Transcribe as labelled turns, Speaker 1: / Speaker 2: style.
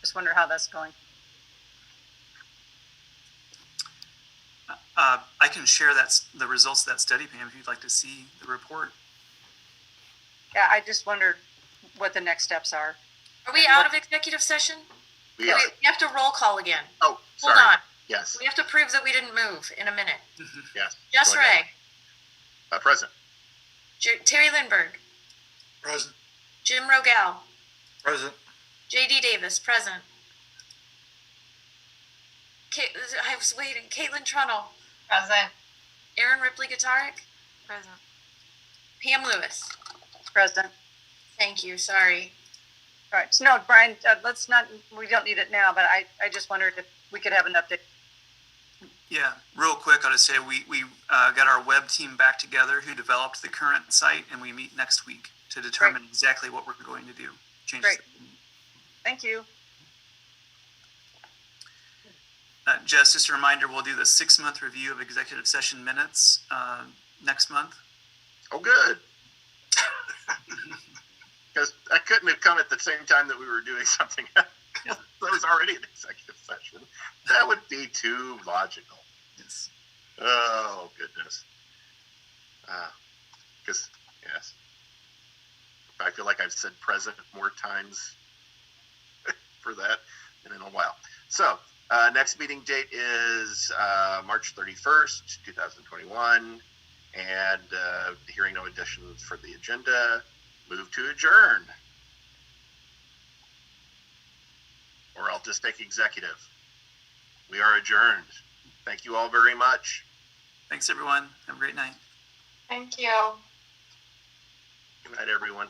Speaker 1: Just wonder how that's going.
Speaker 2: Uh, I can share that's the results of that study, Pam, if you'd like to see the report.
Speaker 1: Yeah, I just wondered what the next steps are.
Speaker 3: Are we out of executive session?
Speaker 4: We are,
Speaker 3: Wait, We have to roll call again.
Speaker 4: oh,
Speaker 3: Hold
Speaker 4: sorry,
Speaker 3: on.
Speaker 4: yes,
Speaker 3: We have to prove that we didn't move in a minute.
Speaker 4: yes,
Speaker 3: Jess
Speaker 4: Go ahead.
Speaker 3: Ray,
Speaker 4: uh, present.
Speaker 3: J- Terry Lindberg,
Speaker 5: Present.
Speaker 3: Jim Rogal,
Speaker 5: Present.
Speaker 3: JD Davis, present. Ka- I was waiting. Caitlin Trunnell,
Speaker 6: Present.
Speaker 3: Aaron Ripley Guitaric,
Speaker 6: Present.
Speaker 3: Pam Lewis.
Speaker 1: President.
Speaker 3: Thank you. Sorry.
Speaker 1: All right. So no, Brian, uh, let's not, we don't need it now, but I, I just wondered if we could have an update.
Speaker 2: Yeah, real quick, I'll just say we, we uh, got our web team back together who developed the current site, and we meet next week to determine exactly what we're going to do. Changes.
Speaker 1: Thank you.
Speaker 2: Uh, Jess, just a reminder, we'll do the six month review of executive session minutes uh, next month.
Speaker 4: Oh, good. Because I couldn't have come at the same time that we were doing something else. that was already an executive session. That would be too logical.
Speaker 2: Yes.
Speaker 4: Oh, goodness. Because, yes. I feel like I've said present more times for that than in a while. So, uh, next meeting date is uh, March 31st, 2021. And uh, hearing no additions for the agenda, move to adjourn. Or I'll just take executive. We are adjourned. Thank you all very much.
Speaker 2: Thanks, everyone. Have a great night.
Speaker 6: Thank you.
Speaker 4: Good night, everyone.